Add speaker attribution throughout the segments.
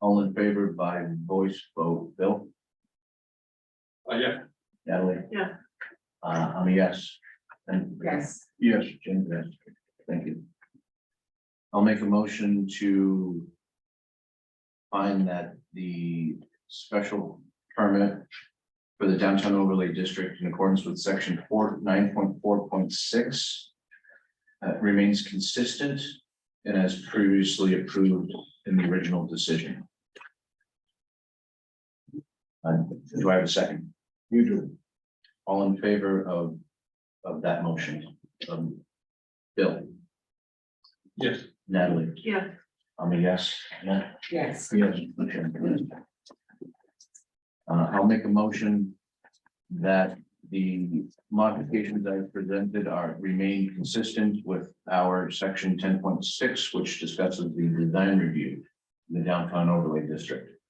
Speaker 1: All in favor by voice vote, Bill,
Speaker 2: Uh, yeah,
Speaker 1: Natalie?
Speaker 3: Yeah.
Speaker 1: Uh, I'm a yes. And-
Speaker 3: Yes.
Speaker 1: Yes, Jim, yes, thank you. I'll make a motion to. Find that the special permit. For the downtown overlay district in accordance with section four, nine point four point six. uh, remains consistent and as previously approved in the original decision. Uh, do I have a second? You do. All in favor of, of that motion? Um, Bill,
Speaker 2: yes,
Speaker 1: Natalie,
Speaker 3: Yeah,
Speaker 1: I'm a yes. Nat?
Speaker 3: yes,
Speaker 1: Yes. Uh, I'll make a motion that the modifications I presented are remain consistent with our section ten point six, which discusses the design review. in The downtown overlay district.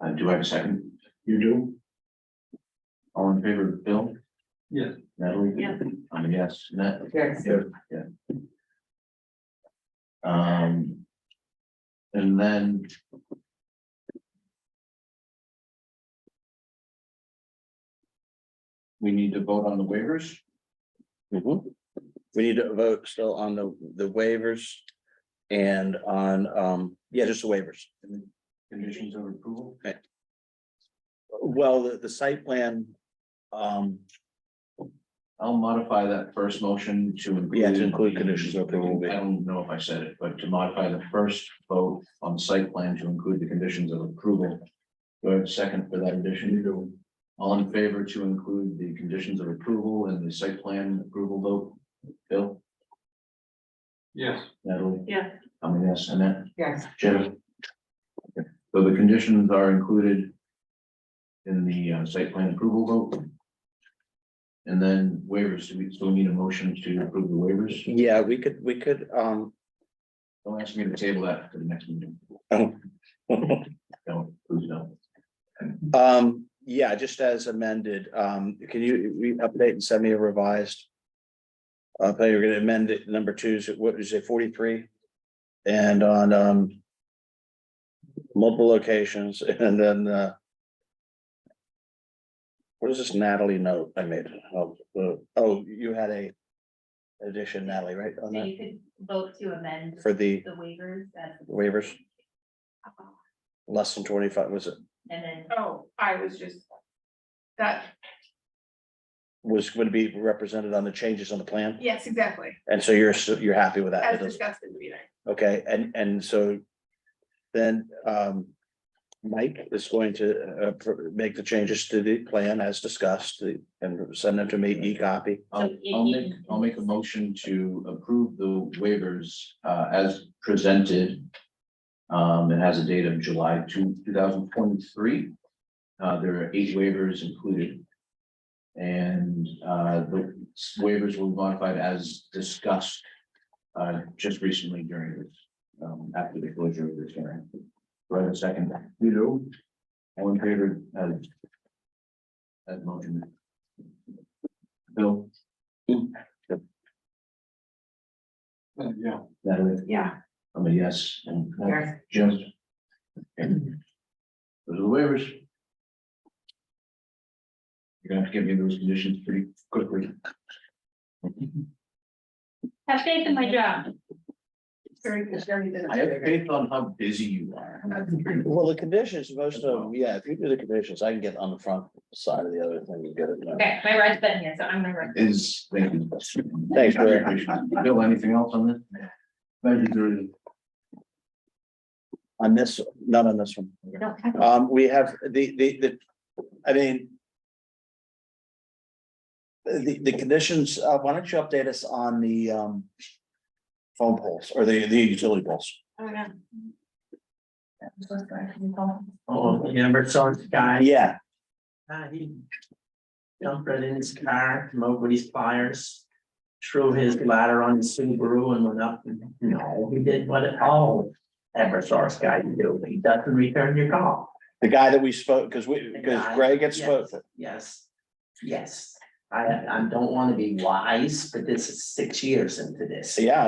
Speaker 1: Uh, do I have a second? You do. All in favor, Bill,
Speaker 2: yes,
Speaker 1: Natalie?
Speaker 3: Yeah.
Speaker 1: I'm a yes, Nat?
Speaker 3: yes,
Speaker 1: Yeah, yeah. Um. And then. We need to vote on the waivers.
Speaker 4: Mhm. We need to vote still on the, the waivers and on, um, yeah, just the waivers.
Speaker 1: and the Conditions of approval.
Speaker 4: Well, the, the site plan, um,
Speaker 1: I'll modify that first motion to include.
Speaker 4: Yeah, to include conditions of approval.
Speaker 1: I don't know if I said it, but to modify the first vote on site plan to include the conditions of approval. Do I have a second for that addition? All in favor to include the conditions of approval and the site plan approval vote? Bill,
Speaker 2: yes,
Speaker 1: Natalie,
Speaker 3: yeah,
Speaker 1: I'm a yes, Annette,
Speaker 3: yes,
Speaker 1: Jim. Okay, So the conditions are included in the uh, site plan approval vote. And then waivers, do we still need a motion to approve the waivers?
Speaker 4: yeah, we could, we could, um,
Speaker 1: Don't ask me to table that for the next meeting. Don't, please don't.
Speaker 4: um, yeah, just as amended, um, can you, we update and send me a revised? Uh, but you're gonna amend it, number two, is it- what did you say, forty-three? And on, um, multiple locations and then, uh, what is this Natalie note I made? Oh, uh, Oh, you had a addition Natalie, right, on
Speaker 5: So
Speaker 4: that,
Speaker 5: you could vote to amend
Speaker 4: for the
Speaker 5: the waivers that,
Speaker 4: waivers, less than twenty-five, was it,
Speaker 5: and then,
Speaker 6: Oh, I was just. That,
Speaker 4: was going to be represented on the changes on the plan?
Speaker 6: yes, exactly,
Speaker 4: And so you're, s- you're happy with that? It
Speaker 6: as
Speaker 4: doesn't-
Speaker 6: discussed in the meeting.
Speaker 4: Okay, and, and so then, um, Mike is going to, uh, pr- make the changes to the plan as discussed the- and send them to me, e e-copy.
Speaker 1: I'll,
Speaker 5: So you-
Speaker 1: I'll
Speaker 5: you-
Speaker 1: make, I'll make a motion to approve the waivers uh as presented. Um, it has a date of July two, two thousand twenty-three. Uh, there are eight waivers included. And uh, the waivers were modified as discussed uh, just recently during this, um, after the closure of this hearing. Do I have a second? You do. All in favor of that motion? Bill?
Speaker 2: uh, yeah,
Speaker 1: Natalie,
Speaker 3: yeah,
Speaker 1: I'm a yes, and uh,
Speaker 3: yes,
Speaker 1: Jim. And Those are the waivers. You're gonna have to give me those conditions pretty quickly.
Speaker 5: have faith in my job.
Speaker 6: Very good, very good.
Speaker 1: I have faith on how busy you are.
Speaker 4: Well, the conditions, most of them, yeah, if you do the conditions, I can get on the front side of the other thing and get it done.
Speaker 5: Okay, my ride's been here, so I'm gonna. ride.
Speaker 1: Is, thank you.
Speaker 4: Thanks, Rick.
Speaker 1: Bill, anything else on this? Thank you, Drew.
Speaker 4: On this, not on this one.
Speaker 5: Don't have-
Speaker 4: Um, we have the, the, the, I mean. The, the conditions, uh, why don't you update us on the, um. Phone poles or the, the utility poles?
Speaker 3: oh, yeah.
Speaker 7: Oh, you never saw this guy,
Speaker 4: Yeah,
Speaker 7: Uh, he jumped right in his car, came over with his pliers. Threw his ladder on his Subaru and went up, and no, he did what all ever saw this guy do, he doesn't return your call,
Speaker 4: the guy that we spoke, because we, because Greg had spoke,
Speaker 7: yes, yes. I, I don't wanna be wise, but this is six years into this.
Speaker 4: yeah,